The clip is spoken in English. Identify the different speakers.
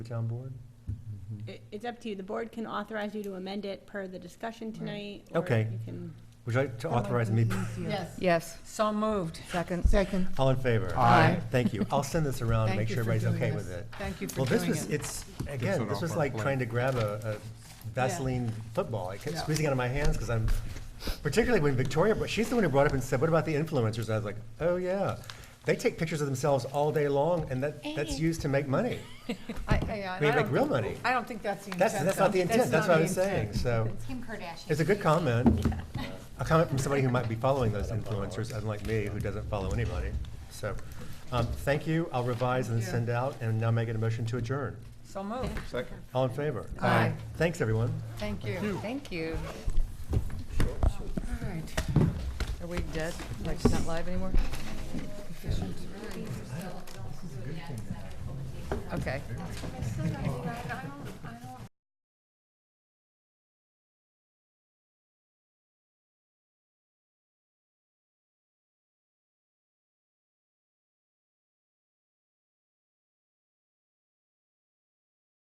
Speaker 1: the town board?
Speaker 2: It, it's up to you. The board can authorize you to amend it per the discussion tonight. or
Speaker 1: Okay.
Speaker 2: you can-
Speaker 1: Would you like to authorize me?
Speaker 3: Yes.
Speaker 4: Yes,
Speaker 3: So moved.
Speaker 4: second.
Speaker 3: Second.
Speaker 1: All in favor?
Speaker 4: Aye.
Speaker 1: Thank you. I'll send this around, and make
Speaker 3: Thank you
Speaker 1: sure
Speaker 3: for
Speaker 1: everybody's
Speaker 3: doing
Speaker 1: okay
Speaker 3: this.
Speaker 1: with it.
Speaker 3: Thank you for
Speaker 1: Well, this
Speaker 3: doing
Speaker 1: was,
Speaker 3: it.
Speaker 1: it's, again,
Speaker 5: it
Speaker 1: this
Speaker 5: off
Speaker 1: was
Speaker 5: our
Speaker 1: like
Speaker 5: plate.
Speaker 1: trying to grab a a Vaseline football. I kept
Speaker 3: Yeah.
Speaker 1: squeezing it out of my hands because I'm, particularly when Victoria, but she's the one who brought up and said, what about the influencers? I was like, oh, yeah. They take pictures of themselves all day long, and that, that's used to make money.
Speaker 3: I- uh, I- I
Speaker 1: We make
Speaker 3: don't-
Speaker 1: real money.
Speaker 3: I don't think that's the intent.
Speaker 1: That's, that's not the
Speaker 3: though.
Speaker 1: intent, that's what I was
Speaker 3: not the
Speaker 1: saying,
Speaker 3: intent.
Speaker 1: so.
Speaker 6: Kim Kardashian.
Speaker 1: It's a good comment. A comment from somebody who might be following those influencers, unlike me, who doesn't follow anybody. So, um, thank you. I'll revise and send out, and now make a motion to adjourn.
Speaker 3: So moved.
Speaker 5: Second.
Speaker 1: All in favor?
Speaker 3: Aye.
Speaker 1: Thanks, everyone.
Speaker 3: Thank you.
Speaker 4: Thank you.
Speaker 3: All right.
Speaker 4: Are we dead? Like, it's not live anymore? Okay.